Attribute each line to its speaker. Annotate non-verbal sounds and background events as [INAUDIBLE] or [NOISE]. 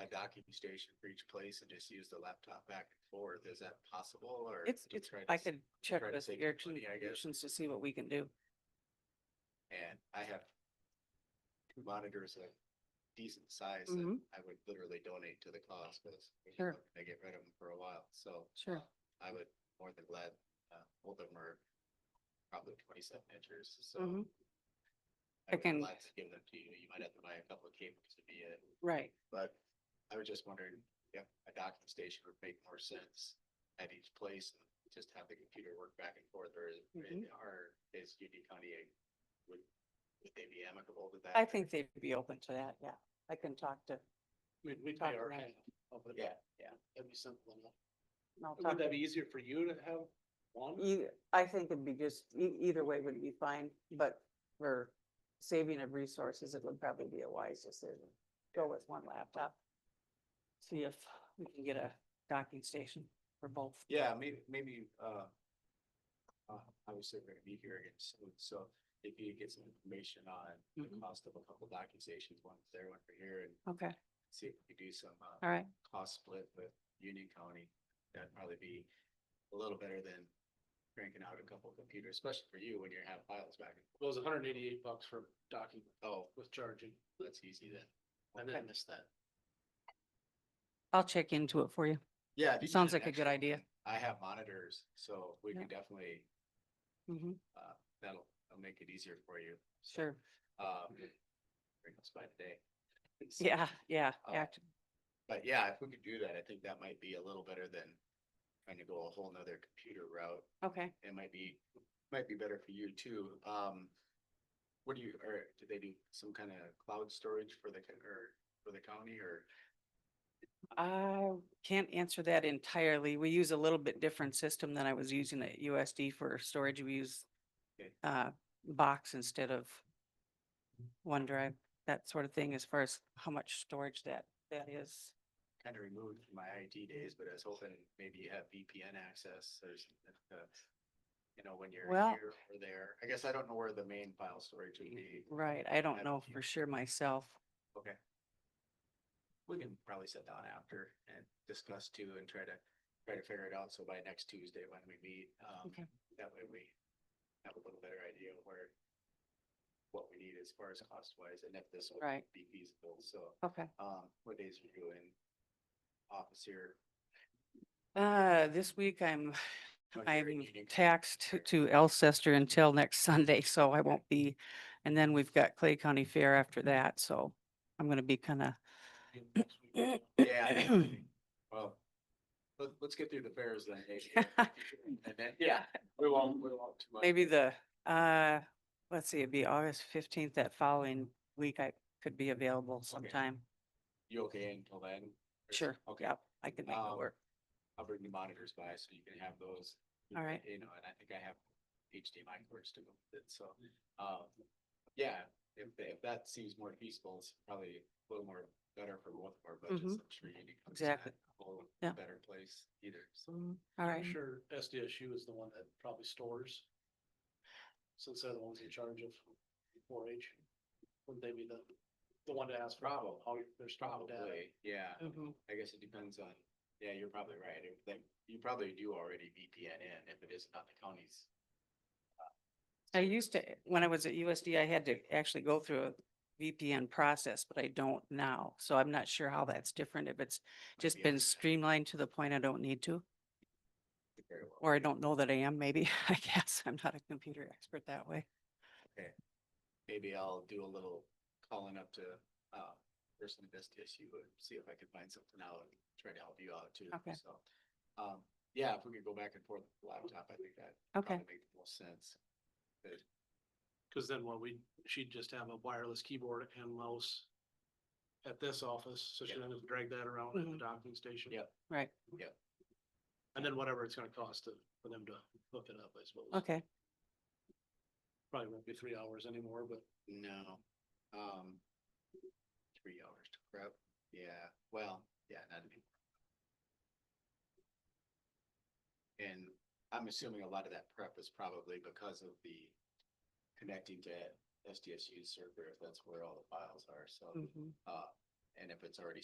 Speaker 1: a docking station for each place and just use the laptop back and forth? Is that possible or?
Speaker 2: It's,
Speaker 1: to
Speaker 2: it's,
Speaker 1: try to
Speaker 2: I
Speaker 1: s-
Speaker 2: could check
Speaker 1: try to
Speaker 2: with
Speaker 1: save
Speaker 2: Eric
Speaker 1: money, I guess.
Speaker 2: Solutions to see what we can do.
Speaker 1: And I have two monitors of decent size that
Speaker 2: Mhm.
Speaker 1: I would literally donate to the cause because
Speaker 2: Sure.
Speaker 1: I get rid of them for a while, so.
Speaker 2: Sure.
Speaker 1: I would more than glad, uh, all of them are probably twenty-seven inches, so.
Speaker 2: Mhm.
Speaker 1: I
Speaker 2: I
Speaker 1: would
Speaker 2: can-
Speaker 1: glad to give them to you. You might have to buy a couple of cables to be it,
Speaker 2: Right.
Speaker 1: but I was just wondering, yep, a docking station would make more sense at each place. and Just have the computer work back and forth or is,
Speaker 2: Mhm.
Speaker 1: or is UD County, a- would, would they be amicable with that?
Speaker 2: I
Speaker 1: or-
Speaker 2: think they'd be open to that, yeah. I can talk to,
Speaker 3: mean, we
Speaker 2: Talk
Speaker 3: pay our
Speaker 2: around.
Speaker 3: hand. off of it.
Speaker 1: Yeah, yeah.
Speaker 3: That'd be simple enough.
Speaker 2: and I'll talk
Speaker 3: Would
Speaker 2: to.
Speaker 3: that be easier for you to have one?
Speaker 2: Either, e, I think it'd be just, e- either way would be fine, but for saving of resources, it would probably be a wise decision. Go with one laptop. See if we can get a docking station for both.
Speaker 1: Yeah, maybe, maybe, uh, uh, obviously we're gonna be here again soon, so if you get some information on the
Speaker 2: Mhm.
Speaker 1: cost of a couple docking stations, one for there, one for here, and
Speaker 2: Okay,
Speaker 1: see if we could do some, uh,
Speaker 2: all right,
Speaker 1: cost split with Union County, that'd probably be a little better than cranking out a couple computers, especially for you when you have files back. and-
Speaker 3: Well, it was hundred and eighty-eight bucks for docking
Speaker 1: Oh,
Speaker 3: with charging.
Speaker 1: that's easy then.
Speaker 3: I didn't miss that.
Speaker 2: I'll check into it for you.
Speaker 1: Yeah. if you
Speaker 2: Sounds
Speaker 1: need an
Speaker 2: like a good
Speaker 1: extra-
Speaker 2: idea.
Speaker 1: I have monitors, so we
Speaker 2: Yeah.
Speaker 1: can definitely,
Speaker 2: Mhm,
Speaker 1: uh, that'll, that'll make it easier for you. so.
Speaker 2: sure,
Speaker 1: um, bring us by today. [LAUGHS] So,
Speaker 2: yeah, yeah,
Speaker 1: Uh,
Speaker 2: act,
Speaker 1: But yeah, if we could do that, I think that might be a little better than trying to go a whole nother computer route.
Speaker 2: okay.
Speaker 1: It might be, might be better for you too. Um, what do you, or do they do some kind of cloud storage for the, co- or for the county or?
Speaker 2: I can't answer that entirely. We use a little bit different system than I was using at USD for storage. We use
Speaker 1: Okay.
Speaker 2: uh, box instead of OneDrive, that sort of thing, as far as how much storage that, that is.
Speaker 1: Kind of removed from my IT days, but I was hoping maybe you have VPN access or something. uh, You know, when you're
Speaker 2: Well-
Speaker 1: here or there. I guess I don't know where the main file storage would be.
Speaker 2: Right, I
Speaker 1: I-
Speaker 2: don't know for sure myself.
Speaker 1: Okay. We can probably sit down after and discuss too and try to, try to figure it out. So by next Tuesday when we meet, um,
Speaker 2: Okay.
Speaker 1: that way we have a little better idea of where, what we need as far as cost wise and if this will
Speaker 2: Right.
Speaker 1: be feasible. So,
Speaker 2: Okay.
Speaker 1: um, what days are you in office here?
Speaker 2: Uh, this week I'm,
Speaker 1: Oh, you're in
Speaker 2: I'm
Speaker 1: Union County.
Speaker 2: taxed to Elcester until next [LAUGHS] Sunday, so I won't be. And then we've got Clay County Fair after that, so I'm gonna be kind of
Speaker 1: Yeah. I think- Well, let, let's get through the fairs then. eh,
Speaker 2: [LAUGHS]
Speaker 1: eh, And then, yeah, we won't, we won't too much.
Speaker 2: Maybe the, uh, let's see, it'd be August fifteenth, that following week I could be available sometime.
Speaker 1: You okay until then?
Speaker 2: Sure.
Speaker 1: Okay.
Speaker 2: Yep, I could make it
Speaker 1: Um,
Speaker 2: work.
Speaker 1: I'll bring the monitors by so you can have those.
Speaker 2: All right.
Speaker 1: You know, and I think I have HDMI cords to go with it, so, um, yeah, if, if that seems more feasible, it's probably a little more better for both of our budgets.
Speaker 2: Mhm.
Speaker 1: I'm sure Union County's
Speaker 2: Exactly.
Speaker 1: not a whole
Speaker 2: Yeah. Mm-hmm.
Speaker 1: Better place either, so.
Speaker 2: All
Speaker 3: I'm
Speaker 2: right.
Speaker 3: sure SDSU is the one that probably stores. Since they're the ones in charge of four H, wouldn't they be the, the one to ask for
Speaker 1: Probably.
Speaker 3: how they're storing the data?
Speaker 1: Probably, yeah,
Speaker 2: Mhm.
Speaker 1: I guess it depends on, yeah, you're probably right, If they- you probably do already VPN in if it is not the county's.
Speaker 2: I used to, when I was at USD, I had to actually go through a VPN process, but I don't now. So I'm not sure how that's different, if it's just
Speaker 1: be
Speaker 2: been
Speaker 1: able to-
Speaker 2: streamlined to the point I don't need to,
Speaker 1: very well.
Speaker 2: or I don't know that I am, maybe. [LAUGHS] I guess I'm not a computer expert that way.
Speaker 1: maybe I'll do a little calling up to, uh, person at SDSU and see if I can find something out and try to help you out too.
Speaker 2: Okay.
Speaker 1: So, um, yeah, if we could go back and forth with the laptop, I think that
Speaker 2: Okay,
Speaker 1: probably makes the most sense.
Speaker 3: Cause then what we, she'd just have a wireless keyboard and mouse at this office, so she
Speaker 1: Yeah.
Speaker 3: doesn't have to drag that around at the
Speaker 2: Mhm.
Speaker 3: docking station.
Speaker 1: Yeah.
Speaker 2: right,
Speaker 3: And then whatever it's gonna cost to, for them to hook it up, I suppose.
Speaker 2: okay.
Speaker 3: Probably won't be three hours anymore, but
Speaker 1: No, um, three hours to prep. Yeah, well, yeah, not anymore. And I'm assuming a lot of that prep is probably because of the connecting to SDSU's server, if that's where all the files are, so.
Speaker 2: Mhm.
Speaker 1: Uh, and if it's already